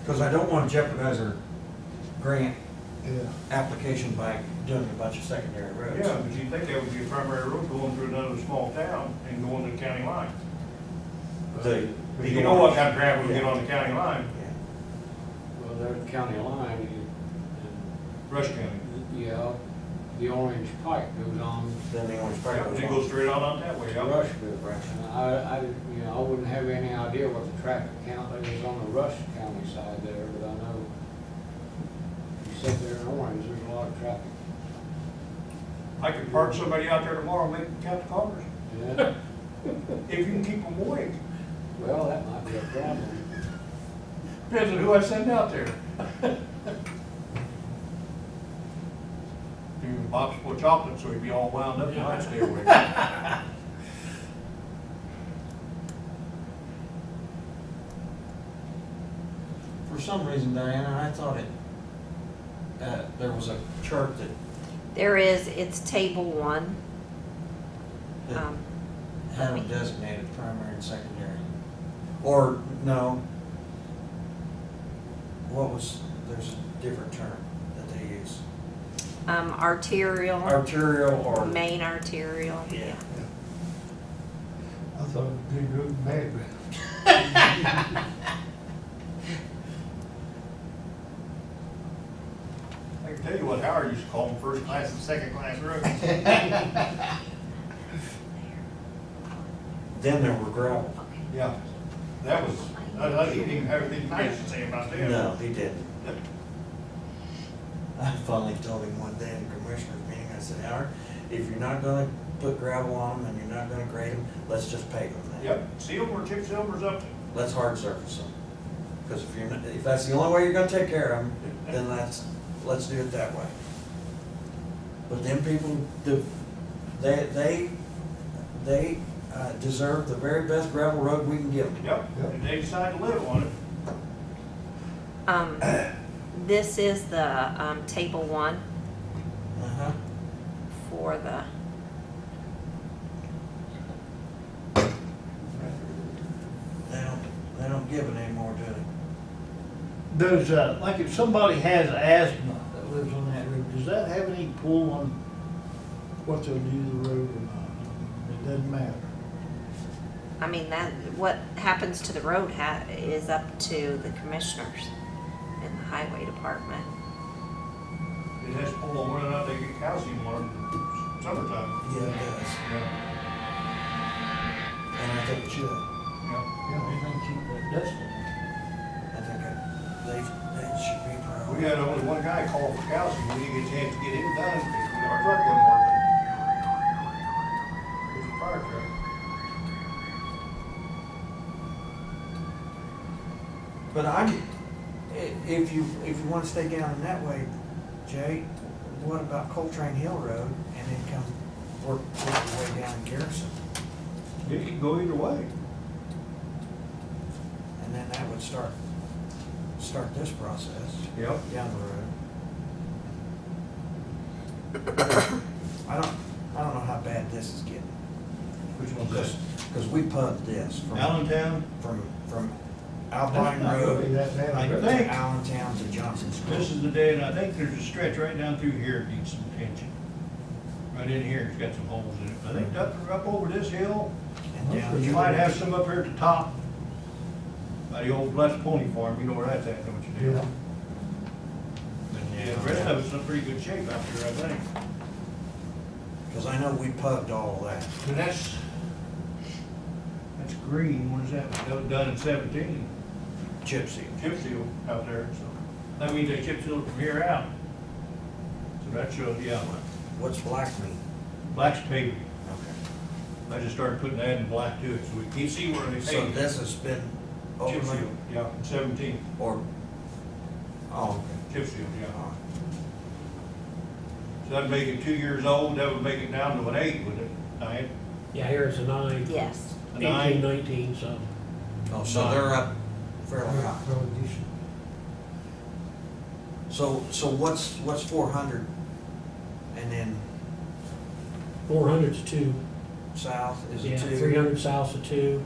Because I don't want to jeopardize our grant Yeah. application by doing a bunch of secondary roads. Yeah, but you'd think that would be a primary road going through another small town and going to the county line. The- But You know what kind of gravel we get on the county line, Yeah. Well, there's the county line, and, Rush County. and, yeah, the orange pipe goes on. Then they always probably. Yeah, It goes straight on out that way. out. Rush, good, right? And I, I, you know, I wouldn't have any idea what the traffic count is on the Rush County side there, but I know you sit there in Orange, there's a lot of traffic. I could park somebody out there tomorrow, and make them count the cars, Yeah, if you can keep them awake. well, that might be a problem. Depends on who I send out there. Dude, Bob's full of chocolate, so he'd be all wound up, and I'd stay awake. For some reason, Diana, I thought it, uh, there was a chart that, There is, it's table one. that Um, had them designated primary and secondary. Or, no. What was, there's a different term that they use. um, Arterial, Arterial or. main arterial, yeah. I thought it'd be good mad, but I can tell you what Howard used to call them, first class and second class roads. Then there were gravel. Yeah, that was, I, I didn't even have anything nice to say about that. No, he didn't. I finally told him one day in the commissioners meeting, I said, Howard, if you're not gonna put gravel on them and you're not gonna grade them, let's just pave them then. Yep, seal or chip sealers up, to- Let's hard surface them. Cause if you're, not- if that's the only way you're gonna take care of them, then let's, let's do it that way. But then people, do- they, they, they uh, deserve the very best gravel road we can give them. yep, and they decide to live on it. Um, this is the, um, table one Uh-huh. for the, They don't, they don't give it anymore, do they? Does, uh, like if somebody has asthma that lives on that road, does that have any pull on what they'll do to the road or not? It doesn't matter. I mean, that, what happens to the road ha- is up to the commissioners and the highway department. It has to pull on whether or not they get calcium or summertime. Yeah, it does. Yeah, And I think it should. yeah. Yeah, they think keep that dust in. I think it- they, they should be proud. We had only one guy call for calcium, we didn't get a chance to get him done, because our truck wasn't working. It was a fire truck. But I, i- if you, if you wanna stay down in that way, Jay, what about Coltrane Hill Road and then come work, work your way down in Garrison? It could go either way. And then that would start, start this process Yep. down the road. I don't, I don't know how bad this is getting, Which one's cause, 'cause we pumped this from, Allentown, from, from That's Alpine not gonna be Road. that bad. I to think- Allentown to Johnson School. This is the day, and I think there's a stretch right down through here that needs some attention. Right in here, it's got some holes in it. I think up, up over this hill, And down you might have some up here at the top. By the old Blessed Pony Farm, you know where that's at, don't you, Yeah. Dale? But yeah, the rest of it's in pretty good shape out here, I think. Because I know we pubbed all that. But that's, that's green, what is that? That was done in seventeen. Chip seal. Chip seal out there, so. That means they chip sealed from here out. So that shows, yeah, What's black mean? black's paving. Okay. I just started putting that in black too, so we can see where they So paint. this has been Chip overlaid seal, yeah, seventeen, or, oh, chip seal, yeah. okay. All right. So that'd make it two years old, that would make it down to an eight, would it, Diane? Yeah, here it's a nine, Yes, A eighteen, nine? nineteen, so. Oh, so they're up fairly high. probably decent. So, so what's, what's four hundred? And then Four hundred's a two, south is a yeah, two? three hundred south's a two,